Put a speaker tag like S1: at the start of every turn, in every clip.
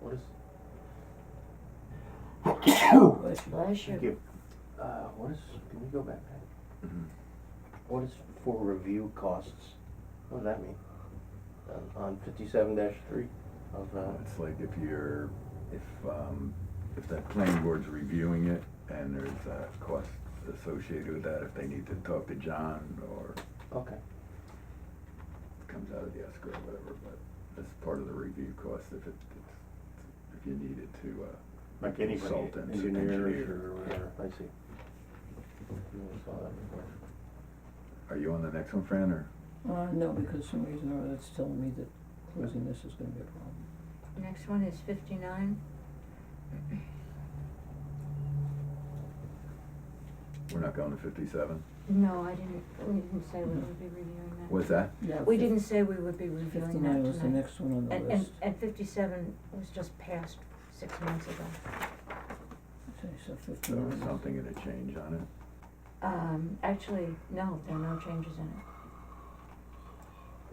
S1: What is,
S2: Bless
S1: thank
S2: you.
S1: you. Uh, what is, can we go back? Pat?
S3: Mm-hmm.
S1: What is for review costs? What does that mean? On- On fifty-seven dash three of, uh,
S3: It's like if you're, if, um, if the planning board's reviewing it and there's a cost associated with that, if they need to talk to John or
S1: okay,
S3: it comes out of the escrow or whatever, but that's part of the review cost if it, it's- if you needed to, uh,
S1: like anybody,
S3: Consultant,
S1: engineers
S3: engineer.
S1: or whatever, I see. Never saw that before.
S3: are you on the next one, Fran, or?
S4: Uh, no, because for some reason or other, it's telling me that closing this is gonna be a problem.
S2: Next one is fifty-nine.
S3: We're not going to fifty-seven?
S2: No, I didn't, we didn't say we would be reviewing that.
S3: What's that?
S4: Yeah,
S2: We
S4: fif-
S2: didn't say we would be reviewing that tonight.
S4: Fifty-nine was the next one on the
S2: And, and,
S4: list.
S2: and fifty-seven was just passed six months ago.
S4: Okay, so
S3: There
S4: fifty-nine.
S3: was
S4: is-
S3: something in a change on it?
S2: Um, actually, no, there are no changes in it.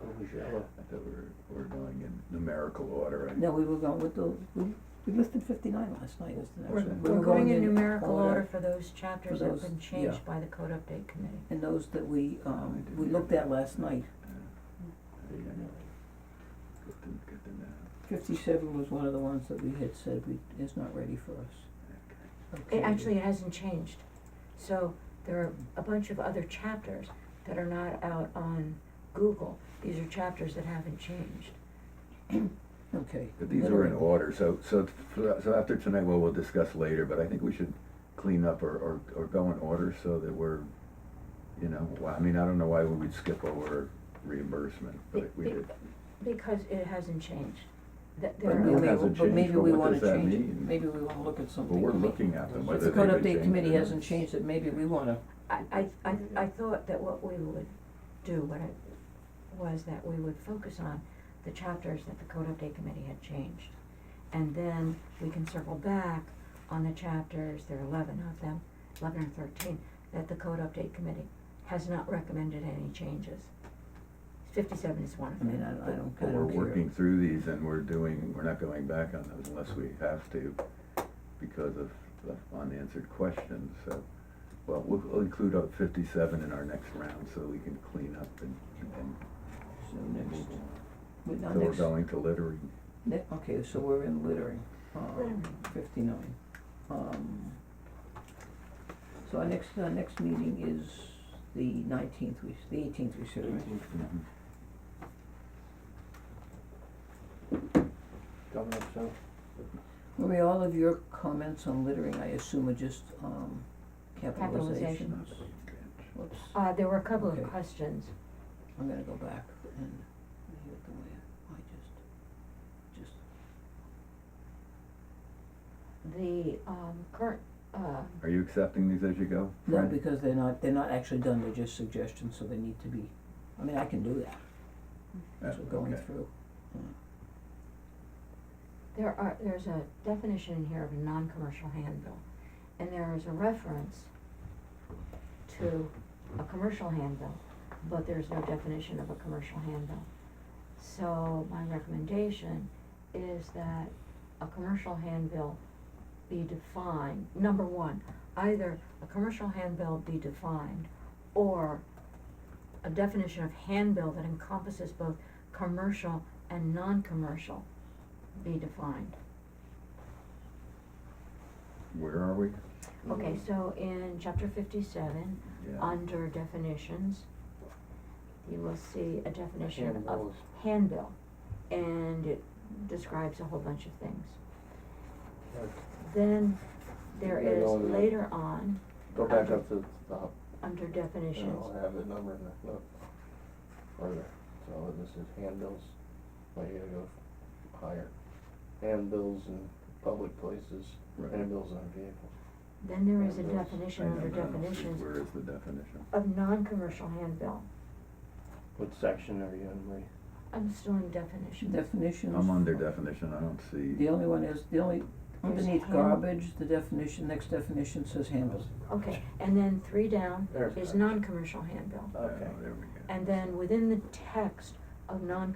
S1: Oh, we should have a-
S3: I thought we were, we we're going in numerical order, right?
S4: No, we were going with the, we, we listed fifty-nine last night as the next
S2: We're,
S4: one. We
S2: we're
S4: were
S2: going in numerical
S4: order,
S2: order for those chapters that have
S4: those-
S2: been
S4: yeah.
S2: changed by the code update committee.
S4: And those that we,
S3: I
S4: um,
S3: didn't
S4: we
S3: hear
S4: looked
S3: that.
S4: at last night,
S3: There you go. Good to, good to know.
S4: fifty-seven was one of the ones that we had said we, is not ready for us.
S3: Okay.
S4: Okay.
S2: It actually hasn't changed. So there are a bunch of other chapters that are not out on Google. These are chapters that haven't changed.
S4: Okay.
S3: But these are in order, so, so, so after tonight, well, we'll discuss later, but I think we should clean up or, or, or go in order so that we're, you know, why- I mean, I don't know why we would skip over reimbursement, but we
S2: Be-
S3: did.
S2: Because it hasn't changed. That
S3: But
S2: there
S3: no,
S2: are.
S3: it hasn't
S4: But
S3: changed,
S4: maybe
S3: but
S4: we
S3: what
S4: wanna
S3: does that
S4: change it,
S3: mean?
S4: maybe we wanna look at
S3: But
S4: something.
S3: we're looking at them,
S4: If
S3: whether
S4: the
S3: they would
S4: code
S3: change it.
S4: update committee
S3: or
S4: hasn't
S3: not.
S4: changed it, maybe we wanna,
S2: I, I, I, I thought that what we would do, what I, was that we would focus on the chapters that the code update committee had changed. And then we can circle back on the chapters, there are eleven of them, eleven or thirteen, that the code update committee has not recommended any changes. Fifty-seven is one of
S4: I mean, I,
S2: them.
S4: I don't, I
S3: But we're
S4: don't care.
S3: working through these and we're doing, we're not going back on those unless we have to because of the unanswered questions, so. Well, we'll we'll include up fifty-seven in our next round so we can clean up and, and
S4: So next, we, now
S3: So we're
S4: next,
S3: going to littering.
S4: ne- okay, so we're in littering, um,
S2: Littering.
S4: fifty-nine, um. So our next, our next meeting is the nineteenth, we, s- the eighteenth we said, right?
S3: Mm-hmm.
S1: Coming up soon.
S4: Marie, all of your comments on littering, I assume are just, um,
S2: Capitalization.
S4: capitalizations, whoops,
S2: Uh, there were a couple of
S4: Okay.
S2: questions.
S4: I'm gonna go back and leave it the way I just, just
S2: The, um, current, uh,
S3: Are you accepting these as you go?
S4: No,
S3: Fran?
S4: because they're not, they're not actually done, they're just suggestions, so they need to be, I mean, I can do that, as
S3: Oh,
S4: we're going
S3: okay.
S4: through.
S2: There are, there's a definition in here of a non-commercial handbill, and there is a reference to a commercial handbill, but there's no definition of a commercial handbill. So my recommendation is that a commercial handbill be defined, number one, either a commercial handbill be defined, or a definition of handbill that encompasses both commercial and non-commercial be defined.
S3: Where are we?
S2: Okay,
S1: Mm.
S2: so in chapter fifty-seven,
S3: Yeah.
S2: under definitions, you will see a definition
S1: handbill
S2: of
S1: is-
S2: handbill, and it describes a whole bunch of things.
S1: Right.
S2: Then there
S1: Yeah,
S2: is
S1: no, no.
S2: later on,
S1: Go back up to the top.
S2: under
S1: I
S2: definitions,
S1: don't have the number in there, look. Further, so this is handbills, but you gotta go higher. Handbills in public places,
S3: Right.
S1: handbills on vehicles.
S2: then there is a
S1: Handbills.
S3: I
S2: definition
S3: know,
S2: under
S3: but I don't see
S2: definitions
S3: Where is the definition?
S2: of non-commercial handbill.
S1: What section are you in, Marie?
S2: I'm still in definitions.
S4: Definitions.
S3: I'm under definition, I don't
S4: The
S3: see,
S4: only one is, the only, underneath
S2: hand-
S4: garbage, the definition, next definition says handles.
S2: Okay, and then three down
S1: There's
S2: is
S1: that.
S2: non-commercial handbill.
S3: oh,
S1: Okay.
S3: there we go.
S2: And then within the text of non-commercial